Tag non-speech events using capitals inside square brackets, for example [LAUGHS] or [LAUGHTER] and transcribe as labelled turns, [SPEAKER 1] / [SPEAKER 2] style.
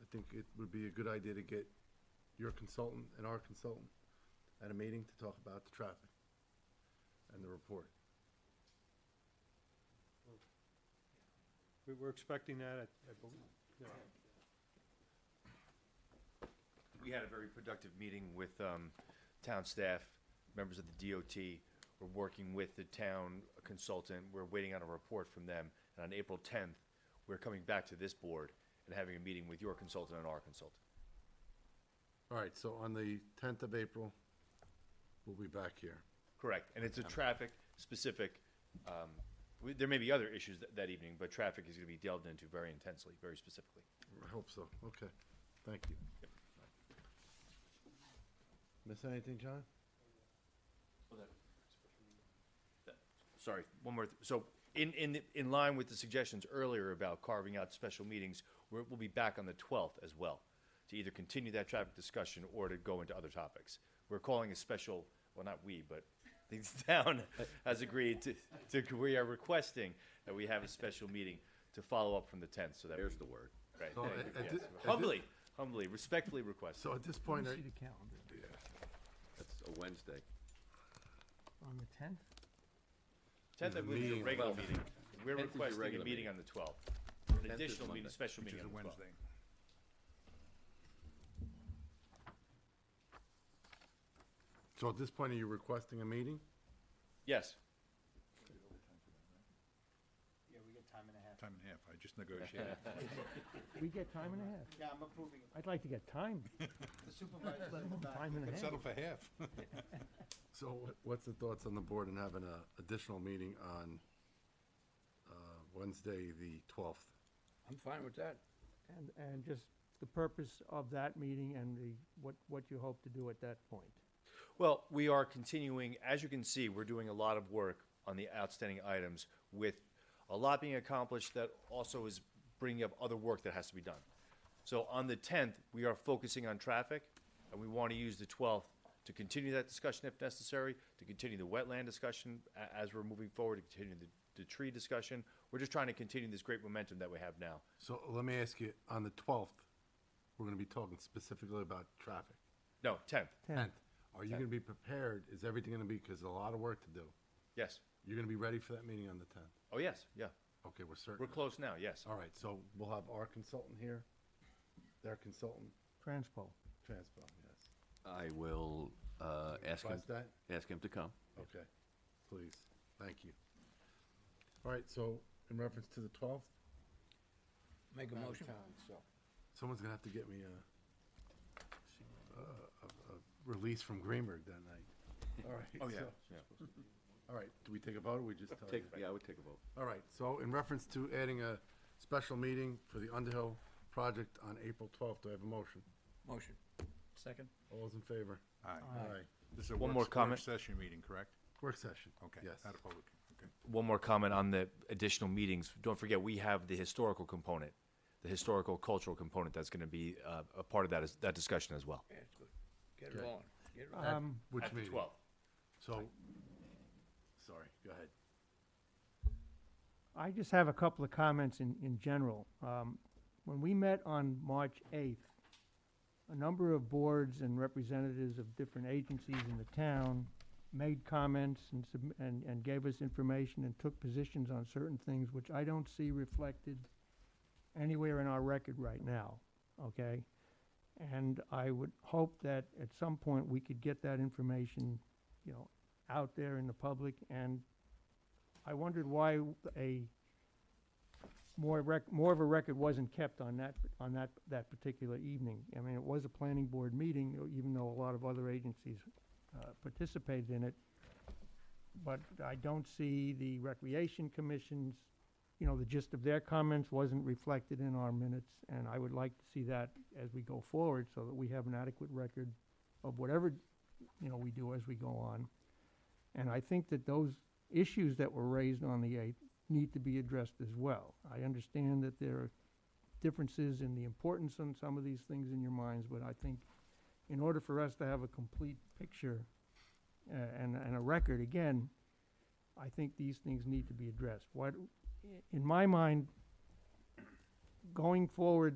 [SPEAKER 1] I think it would be a good idea to get your consultant and our consultant at a meeting to talk about the traffic and the report.
[SPEAKER 2] We were expecting that, I- I believe. yeah.
[SPEAKER 3] We had a very productive meeting with um, town staff, members of the DOT. We're working with the town consultant. We're waiting on a report from them. And on April 10th, we're coming back to this board and having a meeting with your consultant and our consultant.
[SPEAKER 1] All right, so on the tenth of April, we'll be back here.
[SPEAKER 3] Correct. And it's a traffic-specific, um, we- there may be other issues that- that evening, but traffic is going to be delved into very intensely, very specifically.
[SPEAKER 1] I hope so. Okay, thank you. Miss anything, John?
[SPEAKER 3] sorry, one more, th- so, in, in, in line with the suggestions earlier about carving out special meetings, we're, we'll be back on the twelfth as well, to either continue that traffic discussion or to go into other topics. We're calling a special, well, not we, but [LAUGHS] the town has agreed to, to, we are requesting that we have a special meeting to follow up from the tenth, so that. There's the word. Right,
[SPEAKER 1] So,
[SPEAKER 3] thank
[SPEAKER 1] at- at
[SPEAKER 3] you,
[SPEAKER 1] thi-
[SPEAKER 3] yes.
[SPEAKER 1] at thi-
[SPEAKER 3] humbly, humbly, respectfully request.
[SPEAKER 1] So at this point, are-
[SPEAKER 4] calendar.
[SPEAKER 5] That's a Wednesday.
[SPEAKER 4] On the tenth?
[SPEAKER 3] Tenth, I believe, is
[SPEAKER 1] meeting.
[SPEAKER 3] a regular meeting, we're
[SPEAKER 5] 10th is your
[SPEAKER 3] requesting a
[SPEAKER 5] regular
[SPEAKER 3] meeting
[SPEAKER 5] meeting.
[SPEAKER 3] on the twelfth, an
[SPEAKER 5] 10th is
[SPEAKER 3] additional meeting,
[SPEAKER 5] Monday,
[SPEAKER 3] special meeting on the twelfth.
[SPEAKER 1] so at this point, are you requesting a meeting?
[SPEAKER 3] Yes.
[SPEAKER 6] Yeah, we get time and a half.
[SPEAKER 7] Time and a half, I just negotiated.
[SPEAKER 4] We get time and a half.
[SPEAKER 6] Yeah, I'm approving it.
[SPEAKER 4] I'd like to get time,
[SPEAKER 6] The supervisor's in the back.
[SPEAKER 4] time and a half.
[SPEAKER 7] [LAUGHS] Settle for half.
[SPEAKER 1] So wh- what's the thoughts on the board in having a additional meeting on uh, Wednesday, the twelfth?
[SPEAKER 5] I'm fine with that.
[SPEAKER 4] And, and just the purpose of that meeting and the, what, what you hope to do at that point.
[SPEAKER 3] Well, we are continuing, as you can see, we're doing a lot of work on the outstanding items with a lot being accomplished that also is bringing up other work that has to be done. So on the tenth, we are focusing on traffic and we want to use the twelfth to continue that discussion if necessary, to continue the wetland discussion a- as we're moving forward, to continue the, the tree discussion. We're just trying to continue this great momentum that we have now.
[SPEAKER 1] So let me ask you, on the twelfth, we're gonna be talking specifically about traffic.
[SPEAKER 3] No, tenth,
[SPEAKER 1] Tenth, are you gonna be prepared? Is everything gonna be, because a lot of work to do.
[SPEAKER 3] yes.
[SPEAKER 1] You're gonna be ready for that meeting on the tenth?
[SPEAKER 3] Oh, yes, yeah.
[SPEAKER 1] Okay, we're certain.
[SPEAKER 3] We're close now, yes.
[SPEAKER 1] All right, so we'll have our consultant here, their consultant,
[SPEAKER 4] Transpo.
[SPEAKER 1] transplant, yes.
[SPEAKER 5] I will uh, ask him,
[SPEAKER 1] Request that?
[SPEAKER 5] ask him to come.
[SPEAKER 1] Okay, please, thank you. All right, so in reference to the twelfth,
[SPEAKER 6] Make a motion.
[SPEAKER 1] someone's gonna have to get me a, a, a- a release from Greenberg that night. All right.
[SPEAKER 3] Oh, yeah,
[SPEAKER 1] so-
[SPEAKER 3] yeah.
[SPEAKER 1] All right, do we take a vote or we just tell
[SPEAKER 5] Take,
[SPEAKER 1] you?
[SPEAKER 5] yeah, I would take a vote.
[SPEAKER 1] All right, so in reference to adding a special meeting for the Underhill project on April twelfth, do I have a motion?
[SPEAKER 6] Motion.
[SPEAKER 5] Second?
[SPEAKER 1] All those in favor?
[SPEAKER 7] Aye.
[SPEAKER 1] Aye.
[SPEAKER 7] This is a
[SPEAKER 3] One
[SPEAKER 7] work-
[SPEAKER 3] more
[SPEAKER 7] work
[SPEAKER 3] comment.
[SPEAKER 7] Session meeting, correct?
[SPEAKER 1] Work session.
[SPEAKER 7] Okay.
[SPEAKER 1] Yes.
[SPEAKER 7] Not a public, okay.
[SPEAKER 3] one more comment on the additional meetings. Don't forget, we have the historical component, the historical cultural component that's going to be uh, a part of that is that discussion as well.
[SPEAKER 6] Yeah, it's good. Get it on. Get it on.
[SPEAKER 1] At Which
[SPEAKER 3] At the
[SPEAKER 1] meeting?
[SPEAKER 3] 12th.
[SPEAKER 1] So, sorry, go ahead.
[SPEAKER 4] I just have a couple of comments in, in general. Um, when we met on March eighth, a number of boards and representatives of different agencies in the town made comments and sub- and, and gave us information and took positions on certain things, which I don't see reflected anywhere in our record right now, okay? And I would hope that at some point we could get that information, you know, out there in the public and I wondered why a more rec, more of a record wasn't kept on that, on that, that particular evening. I mean, it was a planning board meeting, you know, even though a lot of other agencies, uh, participated in it. But I don't see the recreation commissions, you know, the gist of their comments wasn't reflected in our minutes. And I would like to see that as we go forward, so that we have an adequate record of whatever, you know, we do as we go on. And I think that those issues that were raised on the 8th need to be addressed as well. I understand that there are differences in the importance on some of these things in your minds, but I think in order for us to have a complete picture uh, and, and a record, again, I think these things need to be addressed. What, in my mind, going forward,